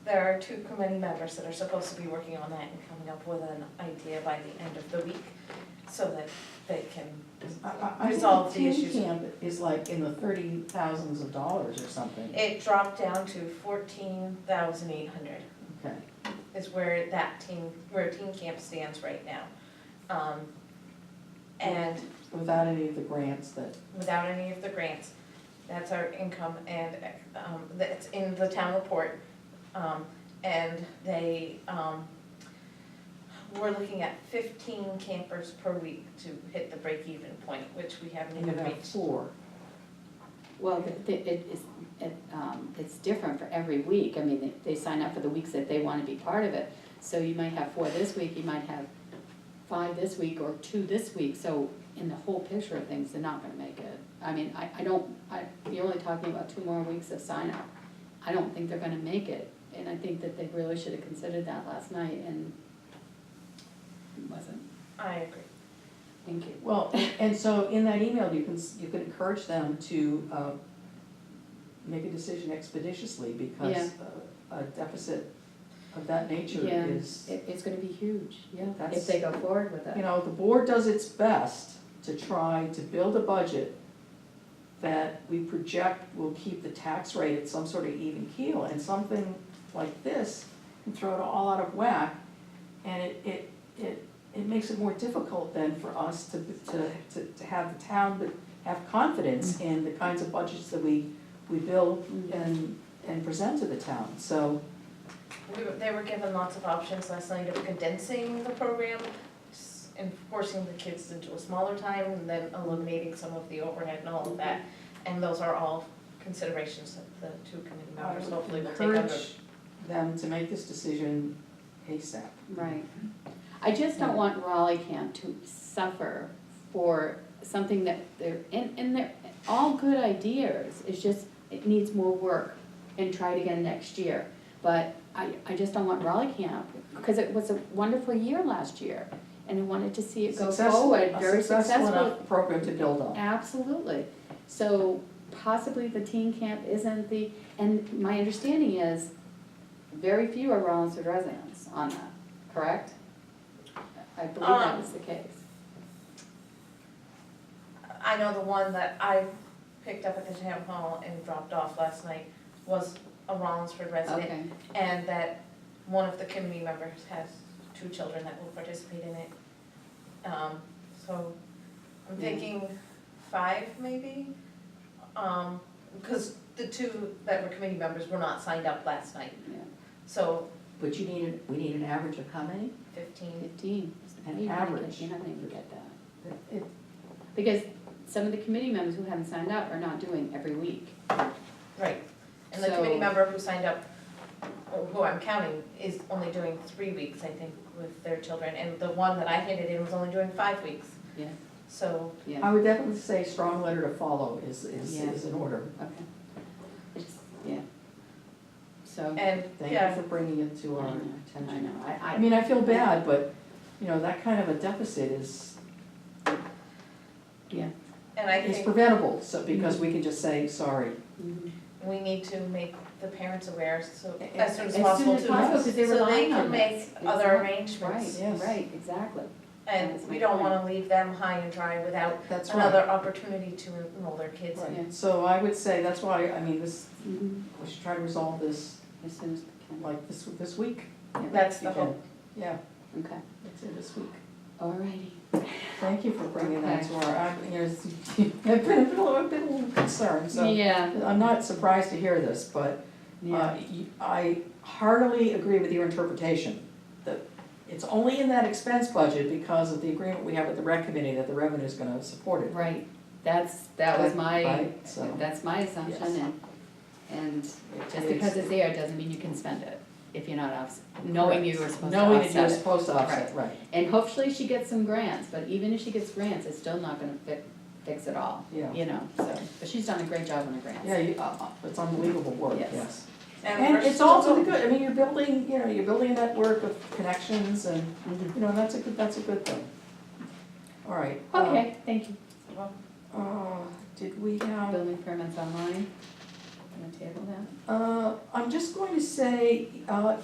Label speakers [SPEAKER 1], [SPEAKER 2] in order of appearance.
[SPEAKER 1] there are two committee members that are supposed to be working on that and coming up with an idea by the end of the week, so that they can,
[SPEAKER 2] I- I- I think
[SPEAKER 1] Resolve the
[SPEAKER 2] tin
[SPEAKER 1] issues.
[SPEAKER 2] can Is like in the thirty thousands of dollars or something,
[SPEAKER 1] it dropped down to fourteen thousand eight hundred.
[SPEAKER 2] okay.
[SPEAKER 1] is where that team, where Teen Camp stands right now. Um, And
[SPEAKER 2] Without any of the grants that,
[SPEAKER 1] without any of the grants, that's our income and um, that's in the town report. Um, And they, um, we're looking at fifteen campers per week to hit the break-even point, which we haven't
[SPEAKER 2] you
[SPEAKER 1] even
[SPEAKER 2] have
[SPEAKER 1] reached.
[SPEAKER 2] four.
[SPEAKER 3] Well, th- th- it is, it, um, it's different for every week, I mean, they- they sign up for the weeks that they wanna be part of it. So you might have four this week, you might have five this week or two this week, so in the whole picture of things, they're not gonna make it. I mean, I, I don't, I, you're only talking about two more weeks of sign up, I don't think they're gonna make it. And I think that they really should have considered that last night and wasn't,
[SPEAKER 1] I agree.
[SPEAKER 3] thank you.
[SPEAKER 2] Well, and so in that email, you can, s- you can encourage them to uh, make a decision expeditiously because uh, a deficit of that nature
[SPEAKER 3] Yeah.
[SPEAKER 2] is,
[SPEAKER 3] It, it's gonna be huge, yeah,
[SPEAKER 2] That's-
[SPEAKER 3] if they go forward with it.
[SPEAKER 2] you know, the board does its best to try to build a budget that we project will keep the tax rate at some sort of even keel, and something like this can throw it all out of whack. And it, it, it, it makes it more difficult then for us to, to, to, to have the town that have confidence in the kinds of budgets that we, we build
[SPEAKER 3] Mm-hmm.
[SPEAKER 2] and, and present to the town, so.
[SPEAKER 1] We were, they were given lots of options last night of condensing the program s- and forcing the kids into a smaller time and then eliminating some of the overhead and all of that. And those are all considerations that the two committee
[SPEAKER 2] I
[SPEAKER 1] members
[SPEAKER 2] would
[SPEAKER 1] hopefully will take under.
[SPEAKER 2] encourage them to make this decision ASAP.
[SPEAKER 3] Right. I just don't want Raleigh Camp to suffer for something that they're, and, and they're, all good ideas, it's just, it needs more work and try it again next year. But I, I just don't want Raleigh Camp, because it was a wonderful year last year, and I wanted to see it go
[SPEAKER 2] Successful-
[SPEAKER 3] forward,
[SPEAKER 2] a
[SPEAKER 3] very successful.
[SPEAKER 2] enough program to build on.
[SPEAKER 3] Absolutely. So possibly the teen camp isn't the, and my understanding is very few are Rollinsford residents on that, correct? I believe
[SPEAKER 2] Um,
[SPEAKER 3] that was the case.
[SPEAKER 1] I know the one that I picked up at the town hall and dropped off last night was a Rollinsford resident.
[SPEAKER 3] Okay,
[SPEAKER 1] And that one of the committee members has two children that will participate in it. Um, so I'm
[SPEAKER 3] Yeah.
[SPEAKER 1] thinking five maybe? Um, because the two that were committee members were not signed up last night,
[SPEAKER 3] yeah,
[SPEAKER 1] so
[SPEAKER 2] But you need, we need an average of how many?
[SPEAKER 1] fifteen.
[SPEAKER 3] fifteen.
[SPEAKER 2] An
[SPEAKER 3] You're not gonna-
[SPEAKER 2] average.
[SPEAKER 3] You're not gonna even get that. Because some of the committee members who haven't signed up are not doing every week.
[SPEAKER 1] Right. And the
[SPEAKER 3] So-
[SPEAKER 1] committee member who signed up, or who I'm counting, is only doing three weeks, I think, with their children. And the one that I handed in was only doing five weeks.
[SPEAKER 3] Yeah.
[SPEAKER 1] So,
[SPEAKER 3] Yeah,
[SPEAKER 2] I would definitely say strong letter to follow is, is,
[SPEAKER 3] Yeah.
[SPEAKER 2] is in order.
[SPEAKER 3] okay. It's, yeah. So,
[SPEAKER 1] and,
[SPEAKER 2] Thank
[SPEAKER 1] yeah,
[SPEAKER 2] you for bringing it to
[SPEAKER 3] I
[SPEAKER 2] our
[SPEAKER 3] know,
[SPEAKER 2] attention.
[SPEAKER 3] I know, I- I-
[SPEAKER 2] I mean, I feel bad, but, you know, that kind of a deficit is,
[SPEAKER 3] yeah.
[SPEAKER 1] and I think.
[SPEAKER 2] is preventable, so,
[SPEAKER 3] Mm-hmm.
[SPEAKER 2] because we can just say, sorry.
[SPEAKER 3] mhm.
[SPEAKER 1] we need to make the parents aware so,
[SPEAKER 2] A-
[SPEAKER 1] as soon as
[SPEAKER 3] as soon
[SPEAKER 1] possible
[SPEAKER 3] as
[SPEAKER 1] too.
[SPEAKER 3] possible, 'cause they're relying on
[SPEAKER 1] So
[SPEAKER 3] this.
[SPEAKER 1] they can make other
[SPEAKER 3] Exact-
[SPEAKER 1] arrangements,
[SPEAKER 3] Right,
[SPEAKER 2] Yes.
[SPEAKER 3] right, exactly.
[SPEAKER 1] and
[SPEAKER 3] That's
[SPEAKER 1] we
[SPEAKER 3] my
[SPEAKER 1] don't
[SPEAKER 3] point.
[SPEAKER 1] wanna leave them high and dry without
[SPEAKER 2] That's right.
[SPEAKER 1] another opportunity to enroll their kids in.
[SPEAKER 3] Yeah.
[SPEAKER 2] Right, so I would say, that's why, I mean, this,
[SPEAKER 3] Mhm.
[SPEAKER 2] we should try to resolve this,
[SPEAKER 3] As soon as we can.
[SPEAKER 2] like, this, this week.
[SPEAKER 1] That's the
[SPEAKER 2] if you can.
[SPEAKER 1] hope.
[SPEAKER 2] Yeah,
[SPEAKER 3] Okay,
[SPEAKER 2] let's say this week.
[SPEAKER 3] alrighty.
[SPEAKER 2] Thank you for bringing that to our, I, there's, I've been, I've been a little, I've been a little concerned, so.
[SPEAKER 3] Yeah,
[SPEAKER 2] I'm not surprised to hear this, but, uh,
[SPEAKER 3] yeah,
[SPEAKER 2] you- I heartily agree with your interpretation. That it's only in that expense budget because of the agreement we have with the rec committee that the revenue is gonna support it.
[SPEAKER 3] right, that's, that was my,
[SPEAKER 2] Right, so.
[SPEAKER 3] that's my assumption
[SPEAKER 2] Yes.
[SPEAKER 3] and, and just because it's there doesn't mean you can spend it if you're not off, knowing you were supposed to
[SPEAKER 2] Knowing that you're
[SPEAKER 3] offset it.
[SPEAKER 2] supposed to offset, right,
[SPEAKER 3] And hopefully she gets some grants, but even if she gets grants, it's still not gonna fi- fix it all,
[SPEAKER 2] Yeah.
[SPEAKER 3] you know, so, but she's done a great job on the grants.
[SPEAKER 2] yeah, you, uh, uh, it's unbelievable work,
[SPEAKER 3] Yes.
[SPEAKER 2] yes.
[SPEAKER 1] we're
[SPEAKER 2] And it's
[SPEAKER 1] still-
[SPEAKER 2] all for the good, I mean, you're building, you know, you're building a network of connections and,
[SPEAKER 3] Mhm.
[SPEAKER 2] you know, that's a good, that's a good thing. All right. um,
[SPEAKER 3] Okay, thank you.
[SPEAKER 2] Uh, did we have,
[SPEAKER 3] Building permits online, gonna table that?
[SPEAKER 2] Uh, I'm just going to say, uh,